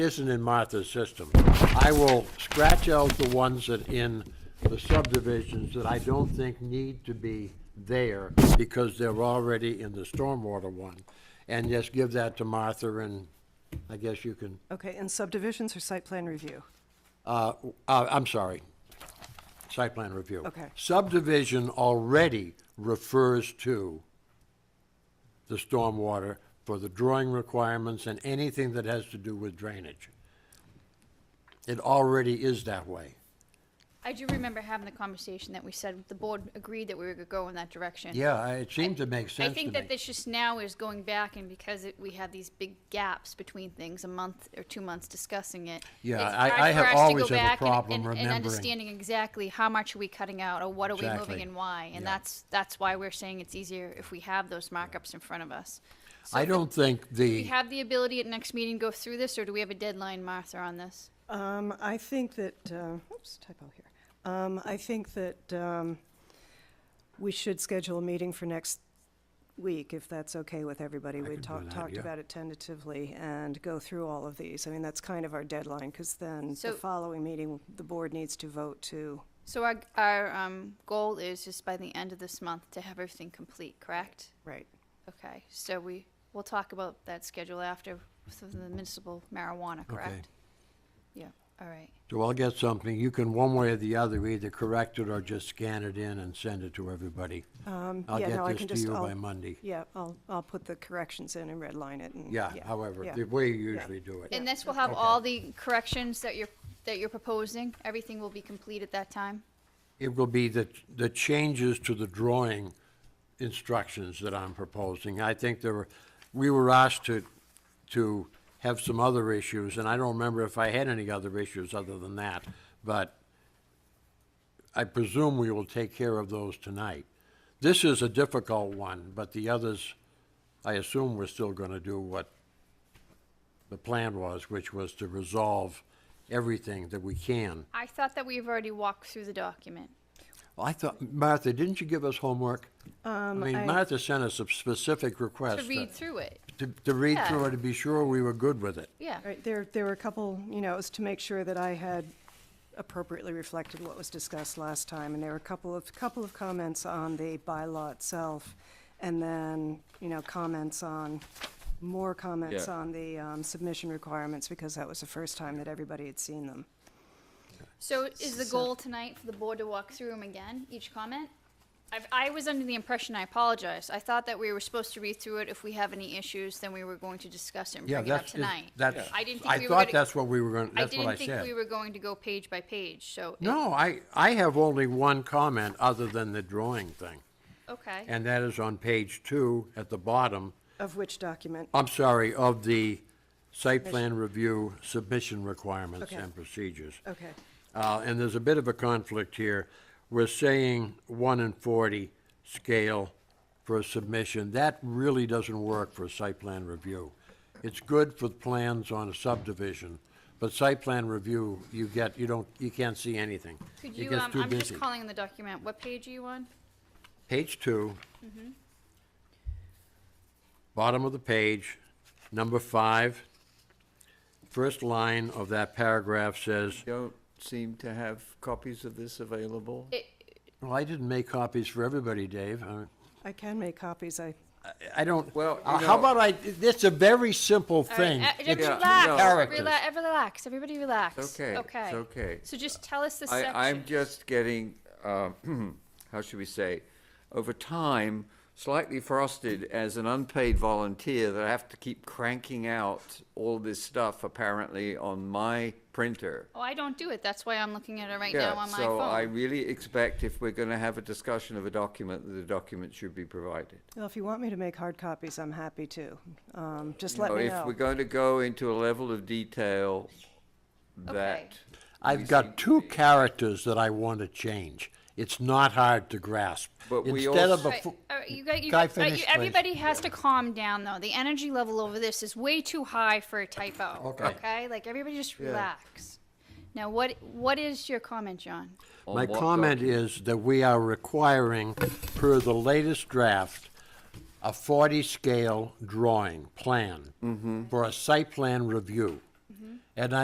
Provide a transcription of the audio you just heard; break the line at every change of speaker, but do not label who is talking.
isn't in Martha's system. I will scratch out the ones that in the subdivisions that I don't think need to be there because they're already in the stormwater one. And just give that to Martha and I guess you can,
Okay, and subdivisions or site plan review?
uh, uh, I'm sorry, site plan review.
Okay.
Subdivision already refers to the stormwater for the drawing requirements and anything that has to do with drainage. It already is that way.
I do remember having the conversation that we said the board agreed that we were going to go in that direction.
Yeah, I- it seemed to make
I
sense to
think that
me.
this just now is going back and because it, we have these big gaps between things, a month or two months discussing it.
Yeah,
it's
I-
hard
I
for
have
us to go
always have a
back and-
problem
and-
remembering.
And understanding exactly how much are we cutting out or what are we
Exactly.
moving and why? And
Yeah.
that's, that's why we're saying it's easier if we have those markups in front of us. So
I
if the-
don't think
Do
the,
we have the ability at next meeting to go through this or do we have a deadline, Martha, on this?
Um, I think that, uh, oops, typo here. Um, I think that, um, we should schedule a meeting for next week, if that's okay with everybody. We
can do
talked,
that,
talked
yeah.
about it tentatively and go through all of these. I mean, that's kind of our deadline, because then the
So-
following meeting, the board needs to vote to,
So our, our um, goal is just by the end of this month to have everything complete, correct?
right.
Okay, so we, we'll talk about that schedule after for the municipal marijuana, correct? Yeah, all right.
so I'll get something, you can one way or the other either correct it or just scan it in and send it to everybody. I'll
Um, yeah, no, I
get this
can
to
just-
you
I'll-
by Monday.
Yeah, I'll, I'll put the corrections in and redline it and.
Yeah, however,
yeah.
the way you usually do it.
And this will have all the corrections that you're, that you're proposing? Everything will be complete at that time?
It will be the, the changes to the drawing instructions that I'm proposing. I think there were, we were asked to, to have some other issues, and I don't remember if I had any other issues other than that, but I presume we will take care of those tonight. This is a difficult one, but the others, I assume we're still gonna do what the plan was, which was to resolve everything that we can.
I thought that we've already walked through the document.
I thought, Martha, didn't you give us homework? I
I-
mean, Martha sent us a specific request.
Um, To read
that-
through it,
To, to read
Yeah.
through it to be sure we were good with it.
yeah.
Right, there, there were a couple, you know, it was to make sure that I had appropriately reflected what was discussed last time, and there were a couple of, couple of comments on the bylaw itself, and then, you know, comments on, more comments
Yeah.
on the um, submission requirements, because that was the first time that everybody had seen them.
So is the goal tonight for the board to walk through them again, each comment? I've, I was under the impression, I apologize, I thought that we were supposed to read through it. If we have any issues, then we were going to discuss it and
Yeah,
bring it up
that's, it-
tonight.
that's,
I didn't think
I
we were
thought
gonna-
that's what we were gonna,
I
that's what I
didn't think we
said.
were going to go page by page, so. it-
No, I, I have only one comment other than the drawing thing,
Okay,
and that is on page two at the bottom.
Of which document?
I'm sorry, of the site plan review submission requirements
Okay.
and procedures.
Okay,
Uh, and there's a bit of a conflict here. We're saying one in forty scale for a submission. That really doesn't work for a site plan review. It's good for plans on a subdivision, but site plan review, you get, you don't, you can't see anything.
could
It
you,
gets
um,
too
I'm just
busy.
calling the document, what page are you on?
Page two.
Mm-hmm.
Bottom of the page, number five. First line of that paragraph says,
Don't seem to have copies of this available.
It,
well, I didn't make copies for everybody, Dave. I-
I can make copies, I,
I don't,
Well, you
uh, how
know-
about I, it's a very simple
all right,
thing.
uh, just
It's
Yeah, no.
relax,
characters.
relax, relax, everybody relax.
Okay, it's
Okay.
okay.
So just tell us the section.
I, I'm just getting, uh, how should we say, over time, slightly frosted as an unpaid volunteer that I have to keep cranking out all this stuff apparently on my printer.
Oh, I don't do it, that's why I'm looking at it right now
Yeah,
on my
so I
phone.
really expect if we're going to have a discussion of a document, that the document should be provided.
well, if you want me to make hard copies, I'm happy to. Um, Just let
So
me
Oh, if we're
know.
going to go into a level of detail that.
I've got two characters that I want to change. It's not hard to grasp.
But we
Instead of
also-
a,
Right,
fu-
all right, you got- you
Guy,
got- uh, you-
finish, please.
Everybody has to calm down, though. The energy level over this is way too high for a typo.
Okay.
Okay, like, everybody just relax. Now, what, what is your comment, John?
on
my
what
comment
document-
is that we are requiring, per the latest draft, a
Mm-hmm.
Mm-hmm.
40 scale drawing plan for a site plan review. And I